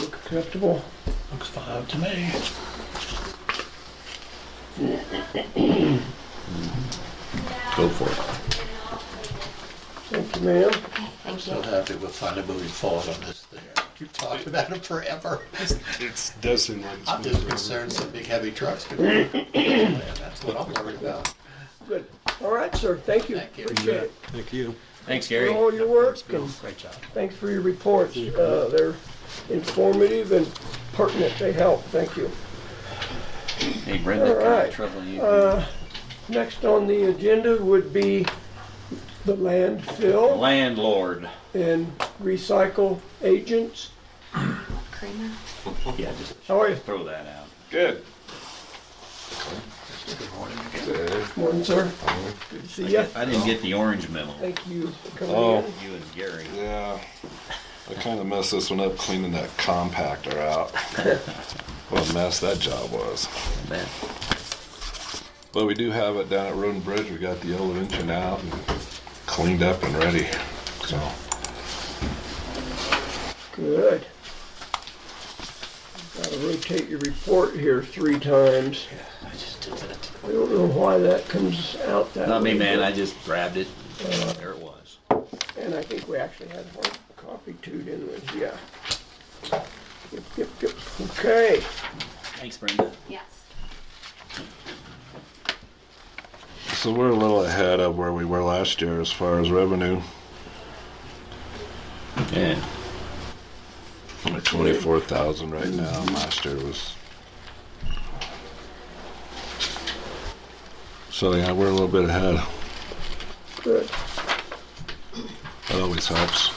Look acceptable. Looks fine to me. Go for it. Thank you, ma'am. I'm so happy we're finally moving forward on this thing. You talked about it forever. It does seem like it's I'm been just forever. concerned some big heavy trucks could. That's what I'm worried about. Good. All right, sir. Thank you. Thank you. Appreciate it. Thank you. Thanks, For Gary. all your work and Great job. thanks for your reports. Uh, they're informative and pertinent. They help. Thank you. Hey, All Brenda, kind right. Uh, of trouble you. Next on the agenda would be the landfill Landlord. and recycle agents. Kramer. Yeah, just How are you? throw that out. Good. Morning, sir. Good to see you. I didn't get the orange memo. Thank you for Oh. coming in. You and Gary. Yeah. I kind of messed this one up cleaning that compactor out. what a mess that job was. Man. But we do have it down at Roden Bridge. We got the yellow engine out and cleaned up and ready. So Good. Gotta rotate your report here three times. I just did that. I don't know why that comes out that way. Not me, man. I just grabbed it. There it was. And I think we actually had hard copy too, didn't we? Yeah. Yep, yep, yep. Okay. Thanks, Brenda. Yes. so we're a little ahead of where we were last year as far as revenue. Yeah. We're twenty-four thousand right now. Last year was. So yeah, we're a little bit ahead. Good. That always helps.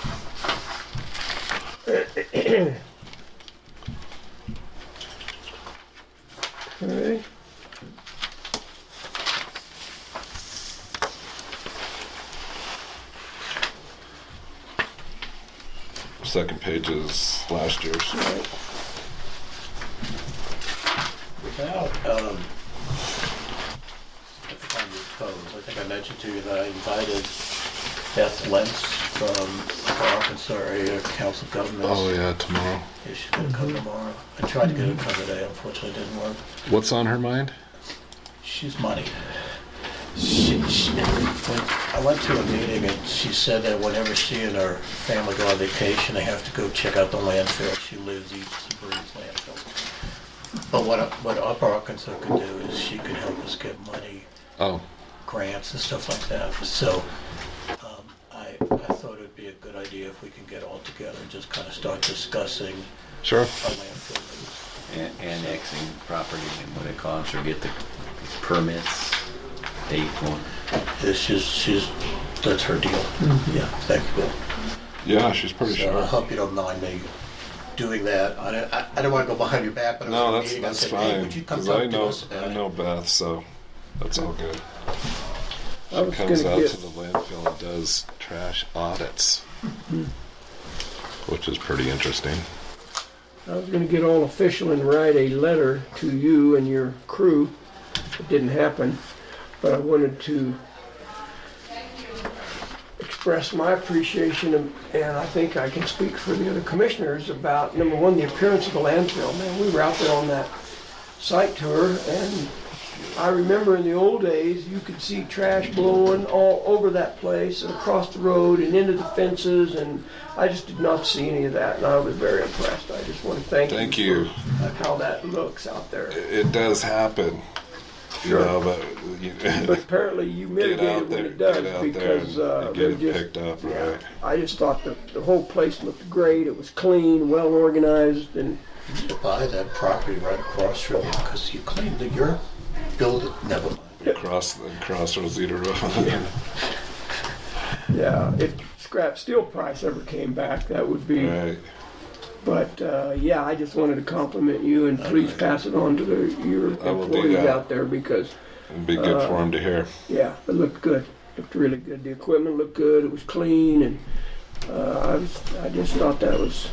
Okay. Second page is last year's. Now, um, at the time you posed, I think I mentioned to you that I invited Beth Lentz from Arkansas Area Council of Oh Governments. yeah, tomorrow. If she's gonna come tomorrow. I tried to get her to come today, unfortunately it didn't work. What's on her mind? She's money. She, she, when I went to a meeting and she said that whenever she and her family go on vacation, they have to go check out the landfill. She lives, eats, and breathes landfill. But what, up- what Upper Arkansas could do is she could help us get money, Oh, grants and stuff like that. So um, I, I thought it'd be a good idea if we could get all together and just kind of start discussing sure. our landfill. needs. An- annexing property and what it costs or get the permits. Date one. It's just, she's, that's her deal. Yeah, thank you. Yeah, she's pretty So I sure. hope you don't mind me doing that. I don't, I- I don't want to go behind your back, but I No, was that's meeting, I that's said, hey, fine. would you come Because I talk to know us I about it? know Beth, so that's all good. I was gonna Comes out get, to the landfill and does trash audits, which is pretty interesting. I was gonna get all official and write a letter to you and your crew. It didn't happen, but I wanted to express my appreciation and and I think I can speak for the other commissioners about, number one, the appearance of the landfill. Man, we were out there on that site tour and I remember in the old days, you could see trash blowing all over that place and across the road and into the fences, and I just did not see any of that, and I was very impressed. I just want to thank, Thank you. for how that looks out there. It does happen. You Sure. know, but you, But apparently, you get mitigate out it when there, it does get out because there, and uh, get they it just. picked up, right? I just thought that the whole place looked great. It was clean, well organized, and You could Buy that property right across from you because you claim that you're building, never mind. Across the across Rosita Road. yeah, if scrap steel price ever came back, that would be. right. But uh, yeah, I just wanted to compliment you, and please pass it on to the, your I will do employees that. out there because It'd be good for him to hear. yeah, it looked good, looked really good. The equipment looked good. It was clean, and uh, I was I just thought that was